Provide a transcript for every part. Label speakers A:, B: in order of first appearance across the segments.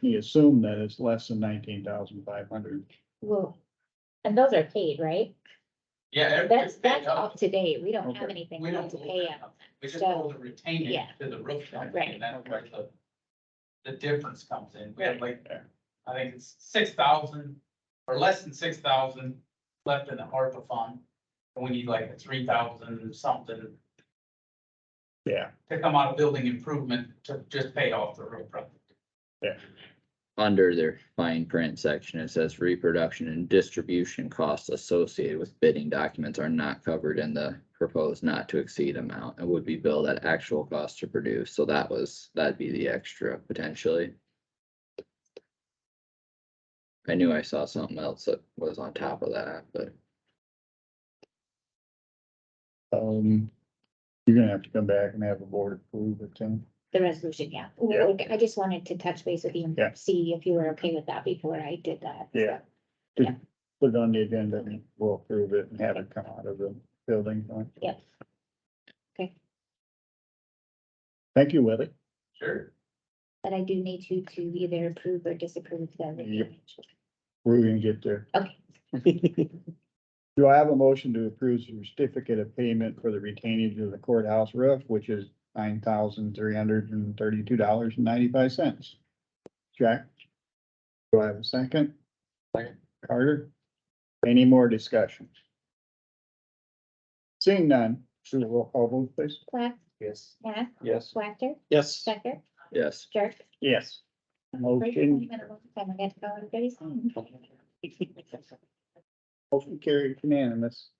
A: he assumed that it's less than nineteen thousand five hundred.
B: Well, and those are paid, right?
C: Yeah. everything
B: That's, that's
C: paid up.
B: up to date. We don't have
A: Okay.
B: anything
C: We
B: we
C: don't
B: need to
C: hold
B: pay
C: it
B: out.
C: up. We just
B: So-
C: hold the retaining
B: yeah.
C: to the roof line,
B: Right.
C: and that's where the, the difference comes in. We had like, I think it's six thousand or less than six thousand left in the ARPA fund. And we need like three thousand something
A: Yeah,
C: to come out of building improvement to just pay off the roof project.
D: under their fine print section, it says reproduction and distribution costs associated with bidding documents are not covered in the proposed not to exceed amount and would be billed at actual cost to produce. So that was, that'd be the extra potentially. I knew I saw something else that was on top of that, but
A: um, you're gonna have to come back and have a board approve it, Tim.
B: The resolution, yeah.
A: Yeah.
B: Okay, I just wanted to touch base with you
A: Yeah.
B: and see if you were okay with that before I did that.
A: Yeah.
B: Yeah.
A: Put it on the agenda and we'll approve it and have it come out of the building. fund.
B: Yep. Okay.
A: Thank you, Willie.
C: Sure.
B: But I do need you to either approve or disapprove the.
A: Yep. We're gonna get there.
B: Okay.
A: Do I have a motion to approve the certificate of payment for the retainage of the courthouse roof, which is nine thousand three hundred and thirty-two dollars and ninety-five cents? Jack? Do I have a second?
D: Second.
A: Carter? Any more discussion? Seeing none, should we roll call vote, please?
B: Plath,
A: Yes.
B: Nat,
A: Yes.
B: Whacker,
A: Yes.
B: Stecker,
D: yes,
B: Jerk.
A: Yes. Motion,
B: I'm gonna go and get his name.
A: motion carried unanimous.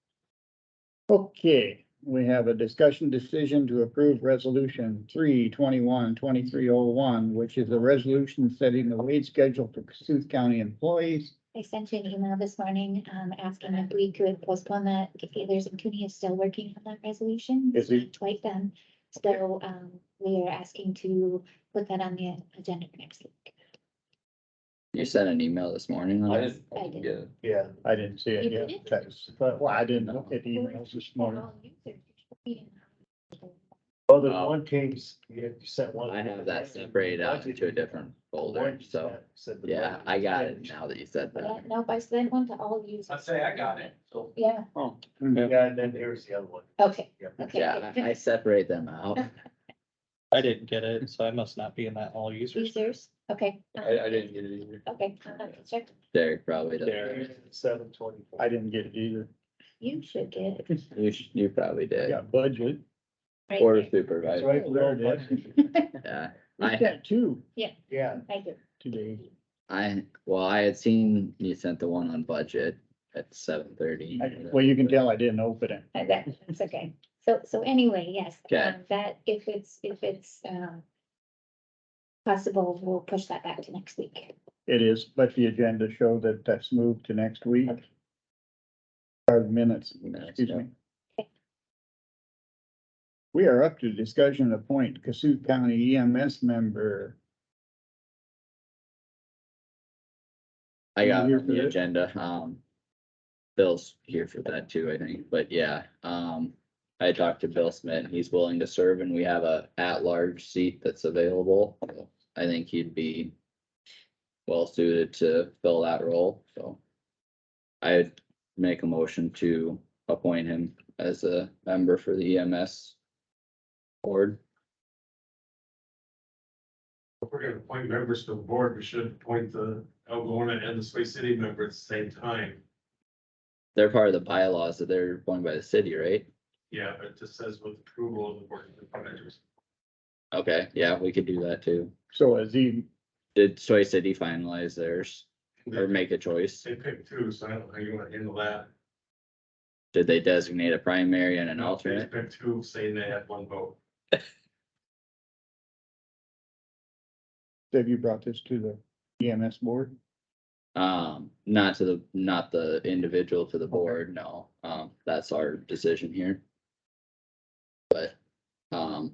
A: Okay, we have a discussion decision to approve resolution three twenty-one twenty-three oh one, which is a resolution setting the wage schedule for Cassuth County employees.
B: I sent you an email this morning, um, asking if we could postpone that, if there's, Cooney is still working on that resolution.
A: Is he?
B: Twice done, so, um, we are asking to put that on the agenda for next week.
D: you sent an email this morning. on
E: I
D: it?
E: just.
B: I did.
E: Yeah,
A: Yeah. I didn't see it
B: You
A: yet.
B: didn't?
A: That's- But, well, I didn't look at emails this morning.
F: Well, the
D: Oh.
F: one came, you sent one.
D: I have that separated out into a different folder,
F: One you
D: so,
F: sent said the
D: yeah,
F: budget
D: I got it
F: changed.
D: now that you said
B: Yeah,
D: that.
B: no, I sent one to all of you.
C: I'd say I got it. So
B: Yeah,
F: Yeah, and then here's the other one.
B: okay,
F: Yep.
B: okay.
D: Yeah, I I separate them out.
G: I didn't get it, so I must not be in that all users.
B: Users, okay.
E: I, I didn't get it either.
B: Okay, I'll have to check.
D: Derek probably doesn't.
G: Derek.
F: Seven twenty-four.
A: I didn't get it either.
B: You should get it.
D: You, sh- you probably did.
A: Yeah, budget.
B: right
D: Or
B: there.
A: That's
D: supervisor,
A: right, there it is.
D: yeah.
A: I
D: I,
A: got two
F: Yeah,
B: Thank you.
A: today.
D: I, well, I had seen you sent the one on budget at seven thirty.
A: I- Well, you can tell I didn't open it.
B: Uh, That, that's okay. So, so anyway, yes,
D: Okay.
B: um, that, if it's, if it's, um, possible, we'll push that back to next week.
A: It is, let the agenda show that that's moved to next week. Or minutes,
D: Minutes,
A: excuse
D: yeah.
A: me. We are up to discussion to appoint Cassuth County EMS member.
D: I got it
A: Here
D: on
A: for
D: the
A: that.
D: agenda, um. Bill's here for that too, I think, but yeah, um, I talked to Bill Smith, and he's willing to serve and we have a at-large seat that's available. I think he'd be well suited to fill that role, so. I'd make a motion to appoint him as a member for the EMS. Board,
H: If we're gonna appoint members to the board, we should appoint the Algona and the Sway City member at the same time.
D: they're part of the bylaws that they're appointed by the city, right?
H: Yeah, but it just says with approval of the board of managers.
D: Okay, yeah, we could do that too.
A: So as he,
D: Did Soy City finalize theirs? or
H: They
D: make a choice?
H: pick two, so I don't know how you wanna handle that.
D: Did they designate a primary and an alternate?
H: They pick two, saying they have one vote.
A: have you brought this to the EMS board?
D: Um, not to the, not the individual to the board, no. Um, that's our decision here. But, um,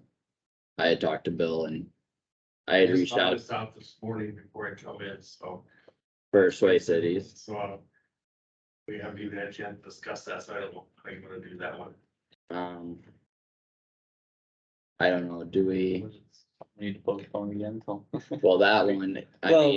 D: I had talked to Bill and I had reached
H: I
D: out
H: just thought this morning before I come in, so.
D: for Sway Cities.
H: So. uh, We haven't even had a chance to discuss that, so I don't know how you wanna do that one.
D: Um, I don't know, do we,
E: Need to postpone again till.
D: well, that one, I
G: Well,
D: mean,